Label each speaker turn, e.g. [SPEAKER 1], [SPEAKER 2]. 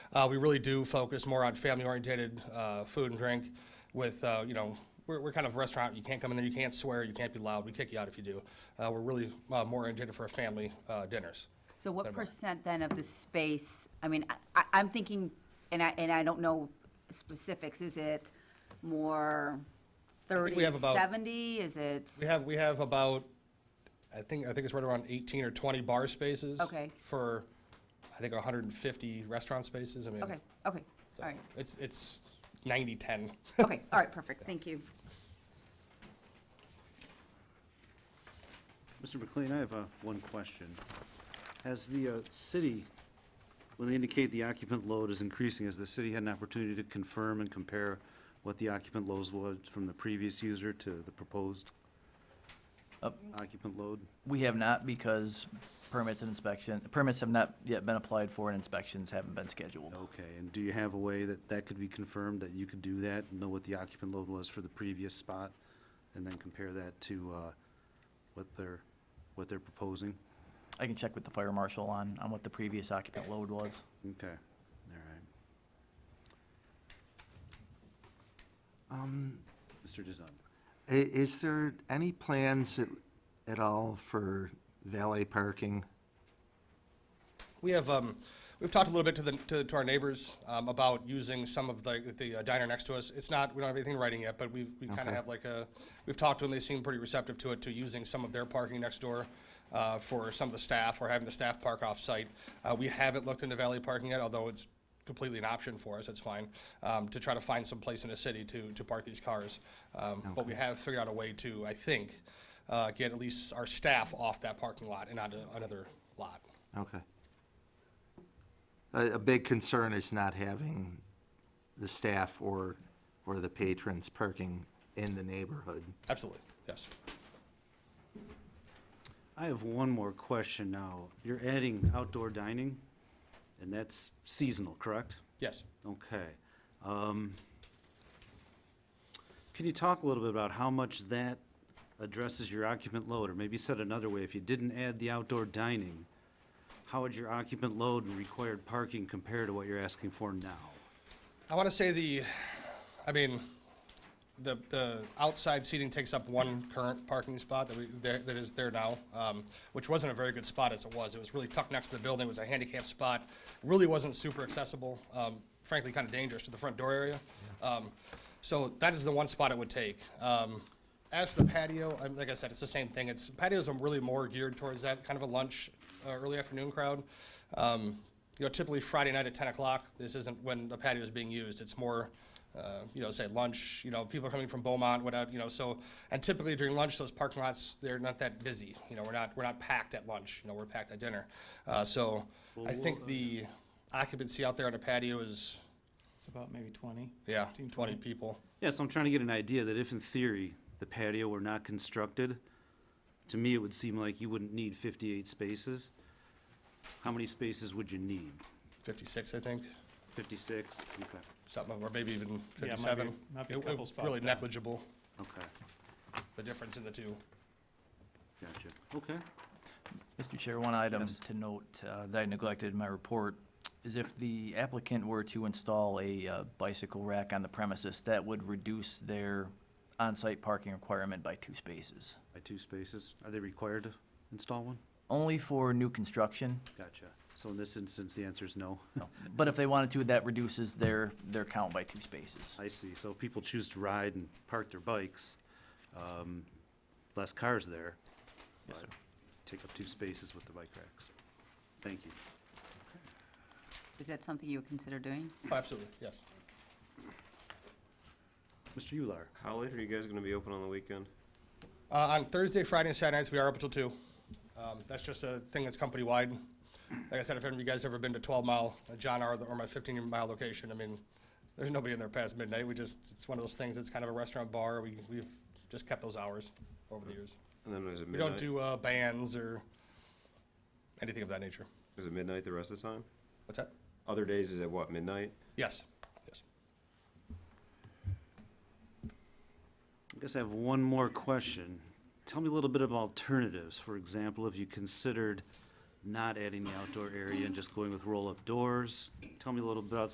[SPEAKER 1] Uh, we really do focus more on family-oriented uh, food and drink with, uh, you know, we're, we're kind of a restaurant. You can't come in there, you can't swear, you can't be loud. We kick you out if you do. Uh, we're really uh, more oriented for family uh, dinners.
[SPEAKER 2] So what percent then of the space, I mean, I- I, I'm thinking, and I, and I don't know specifics, is it more
[SPEAKER 1] think
[SPEAKER 2] 30,
[SPEAKER 1] we have about-
[SPEAKER 2] 70? Is it,
[SPEAKER 1] We have we have about, I think I think it's right around 18 or 20 bar spaces.
[SPEAKER 2] Okay.
[SPEAKER 1] For, I think 150 restaurant spaces. I mean,
[SPEAKER 2] okay, okay, all right,
[SPEAKER 1] it's it's 90 10.
[SPEAKER 2] okay, all right, perfect, thank you.
[SPEAKER 3] Mr. McLean, I have uh, one question. Has the uh, city, when they indicate the occupant load is increasing, has the city had an opportunity to confirm and compare what the occupant loads was from the previous user to the proposed
[SPEAKER 4] Up.
[SPEAKER 3] occupant load?
[SPEAKER 4] We have not because permits and inspection, permits have not yet been applied for and inspections haven't been scheduled.
[SPEAKER 3] Okay, and do you have a way that that could be confirmed, that you could do that, know what the occupant load was for the previous spot, and then compare that to uh, what they're, what they're proposing?
[SPEAKER 4] I can check with the fire marshal on, on what the previous occupant load was.
[SPEAKER 3] Okay, all right.
[SPEAKER 5] Um,
[SPEAKER 3] Mr. Design.
[SPEAKER 5] i- is there any plans at, at all for valet parking?
[SPEAKER 1] We have, um, we've talked a little bit to the, to, to our neighbors, um, about using some of the, the uh, diner next to us. It's not, we don't have anything in writing yet, but we, we kind of
[SPEAKER 5] Okay.
[SPEAKER 1] have like a, we've talked to them, they seem pretty receptive to it, to using some of their parking next door, uh, for some of the staff, or having the staff park off-site. Uh, we haven't looked into valet parking yet, although it's completely an option for us, it's fine, um, to try to find some place in the city to, to park these cars. Um, but we have figured out a way to, I think, uh, get at least our staff off that parking lot and onto another lot.
[SPEAKER 5] Okay. A, a big concern is not having the staff or, or the patrons parking in the neighborhood.
[SPEAKER 1] Absolutely, yes.
[SPEAKER 3] I have one more question now. You're adding outdoor dining, and that's seasonal, correct?
[SPEAKER 1] Yes.
[SPEAKER 3] Okay. Um, Can you talk a little bit about how much that addresses your occupant load? Or maybe said another way, if you didn't add the outdoor dining, how would your occupant load and required parking compare to what you're asking for now?
[SPEAKER 1] I want to say the, I mean, the, the outside seating takes up one current parking spot that we, there- that is there now, um, which wasn't a very good spot as it was. It was really tucked next to the building, it was a handicap spot, really wasn't super accessible, um, frankly, kind of dangerous to the front door area. Um, So that is the one spot it would take. Um, As for the patio, I'm- like I said, it's the same thing. It's, patios are really more geared towards that kind of a lunch, uh, early afternoon crowd. Um, You know, typically Friday night at 10 o'clock, this isn't when the patio is being used. It's more, uh, you know, say lunch, you know, people are coming from Beaumont, without, you know, so, and typically during lunch, those parking lots, they're not that busy. You know, we're not, we're not packed at lunch, you know, we're packed at dinner. Uh, So I think the occupancy out there on the patio is,
[SPEAKER 6] It's about maybe 20.
[SPEAKER 1] yeah,
[SPEAKER 6] 15,
[SPEAKER 1] 20 people.
[SPEAKER 3] Yeah, so I'm trying to get an idea that if in theory the patio were not constructed, to me it would seem like you wouldn't need fifty-eight spaces. How many spaces would you need?
[SPEAKER 1] 56, I think,
[SPEAKER 3] Fifty-six? Okay,
[SPEAKER 1] something, or maybe even
[SPEAKER 6] maybe-
[SPEAKER 1] 57.
[SPEAKER 6] might be a
[SPEAKER 1] It- it-
[SPEAKER 6] couple spots
[SPEAKER 1] Really
[SPEAKER 6] down.
[SPEAKER 1] negligible,
[SPEAKER 3] okay,
[SPEAKER 1] the difference in the two.
[SPEAKER 3] gotcha. Okay,
[SPEAKER 4] Mr. Chair, one item
[SPEAKER 3] Yes.
[SPEAKER 4] to note uh, that I neglected in my report is if the applicant were to install a uh, bicycle rack on the premises, that would reduce their on-site parking requirement by two spaces.
[SPEAKER 3] by two spaces, are they required to install one?
[SPEAKER 4] Only for new construction,
[SPEAKER 3] Gotcha. So in this instance, the answer is no.
[SPEAKER 4] but if they wanted to, that reduces their, their count by two spaces.
[SPEAKER 3] I see, so if people choose to ride and park their bikes, um, less cars there.
[SPEAKER 4] Yes,
[SPEAKER 3] but
[SPEAKER 4] sir.
[SPEAKER 3] Take up two spaces with the bike racks. Thank you.
[SPEAKER 2] Is that something you would consider doing?
[SPEAKER 1] Oh, Absolutely, yes.
[SPEAKER 3] Mr. Ular?
[SPEAKER 7] How late are you guys going to be open on the weekend?
[SPEAKER 1] Uh, on Thursday, Friday, and Saturday nights, we are up until two. Um, that's just a thing that's company wide. Like I said, if any of you guys ever been to Twelve Mile, uh, John R. or my fifteen mile location, I mean, there's nobody in there past midnight. We just, it's one of those things. It's kind of a restaurant bar. We, we've just kept those hours over the years.
[SPEAKER 7] And then is it
[SPEAKER 1] We
[SPEAKER 7] midnight?
[SPEAKER 1] don't do, uh, bands or anything of that nature.
[SPEAKER 7] Is it midnight the rest of the time?
[SPEAKER 1] What's that?
[SPEAKER 7] Other days is at what, midnight?
[SPEAKER 1] Yes, yes.
[SPEAKER 3] I guess I have one more question. Tell me a little bit about alternatives. For example, if you considered not adding the outdoor area and just going with roll-up doors. Tell me a little bit about